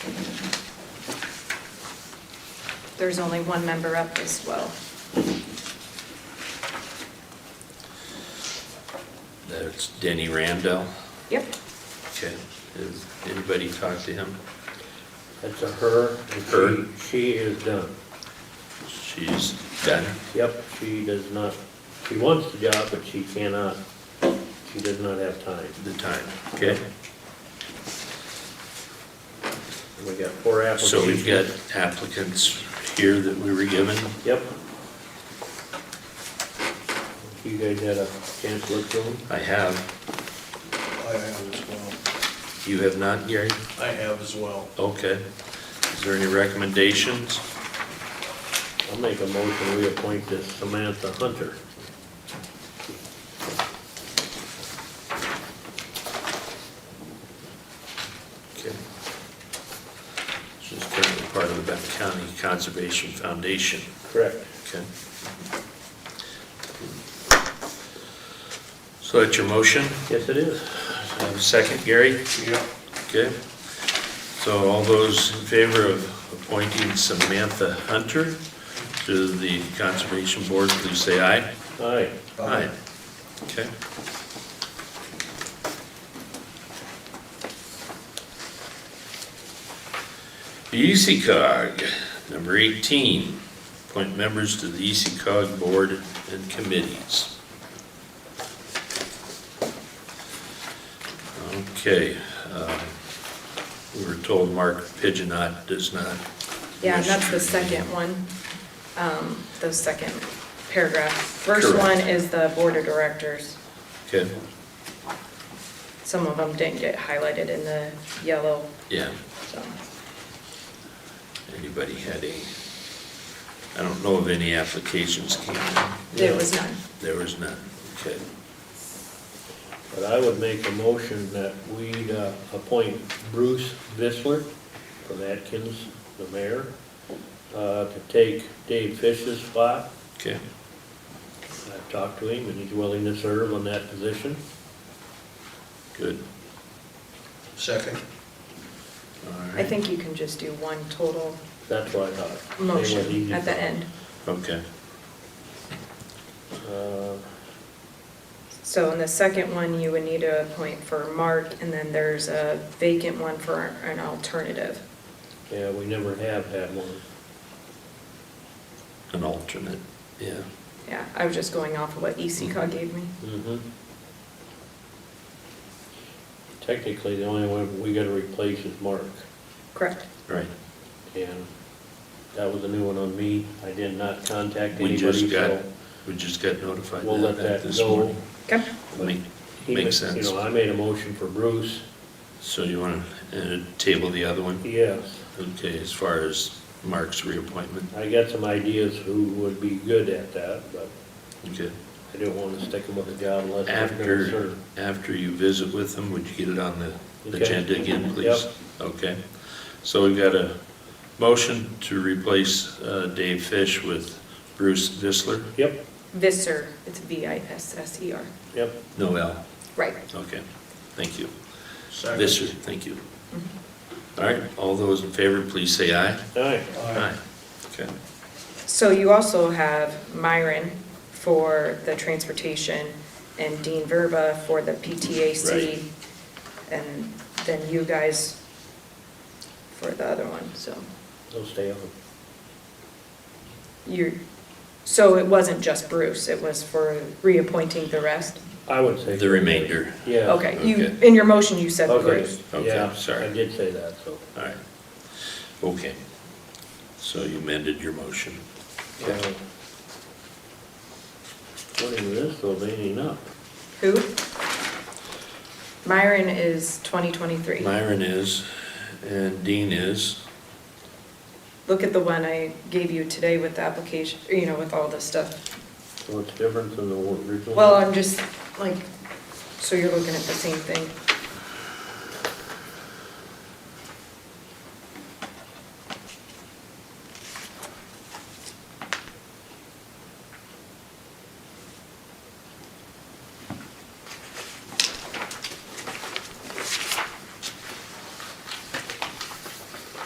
there's only one member up as well. That's Denny Ramdell. Yep, Okay. Has anybody talked to him? That's a her. and she- Her. She is done. She's done. Yep, she does not, she wants the job, but she cannot, she does not have time. The time. Okay. We got four applications. So we've got applicants here that we were given. Yep. You guys had a chance to look through them? I have. I have as well. You have not, Gary? I have as well. Okay. Is there any recommendations? I'll make a motion, we appoint this Samantha Hunter. Okay. She's currently part of the Benton County Conservation Foundation. Correct. Okay. So that's your motion? Yes, it is. Have a second, Gary? Yep. Okay. So all those in favor of appointing Samantha Hunter to the Conservation Board, please say aye. Aye. Aye. Okay. The ECOG, number 18, appoint members to the ECOG Board and committees. Okay, um, we were told Mark Pigeonot does not. yeah, and wish that's to the be- second one, um, the second paragraph. First Correct. one is the board of directors. Okay, Some of them didn't get highlighted in the yellow, yeah. so. anybody had a, I don't know of any applications came in. There was none. There was none, okay. But I would make a motion that we uh, appoint Bruce Visler from Atkins, the mayor, uh, to take Dave Fish's spot. Okay, I've talked to him, and he's willing to serve on that position. good, Second. all I right, think you can just do one total That's what I thought. They were motion easy. at the end. okay. Uh, So in the second one, you would need a point for Mark, and then there's a vacant one for an alternative. Yeah, we never have had one. An alternate, yeah. Yeah, I was just going off of what E ECOG gave me. Mhm. Technically, the only one we gotta replace is Mark, Correct. Right, and that was a new one on me. I did not contact we just anybody, got, so we just got notified we'll that let back that this go. morning. Okay. Make- He Makes ma- sense. You know, I made a motion for Bruce, So you want to table the other one? yes. Okay, as far as Mark's reappointment, I got some ideas who would be good at that, but okay. I didn't wanna stick him with a job unless they're gonna After, serve. after you visit with them, would you get it on the Okay. agenda again, please? Okay. So we've got a motion to replace uh, Dave Fish with Bruce Visler? Yep, Visser, it's V-I-S-S-E-R. yep. No L. E Right. Okay, thank you. Second. Visser, thank you. All right, all those in favor, please say aye. All right, Aye. Okay, So you also have Myron for the transportation and Dean Verba for the PTAC. Right. And then you guys for the other one, so they'll stay on. you're, so it wasn't just Bruce, it was for reappointing the rest? I would say. the remainder. Yeah. Okay, you, Okay. in your motion, you said Bruce. Okay, Okay, yeah, sorry. I did say that, so. All right. Okay. So you amended your motion. uh, According to this, though, they ain't up. Who? Myron is 2023. Myron is, and Dean is. Look at the one I gave you today with the application, you know, with all this stuff. So it's different than the original? Well, I'm just like, so you're looking at the same thing.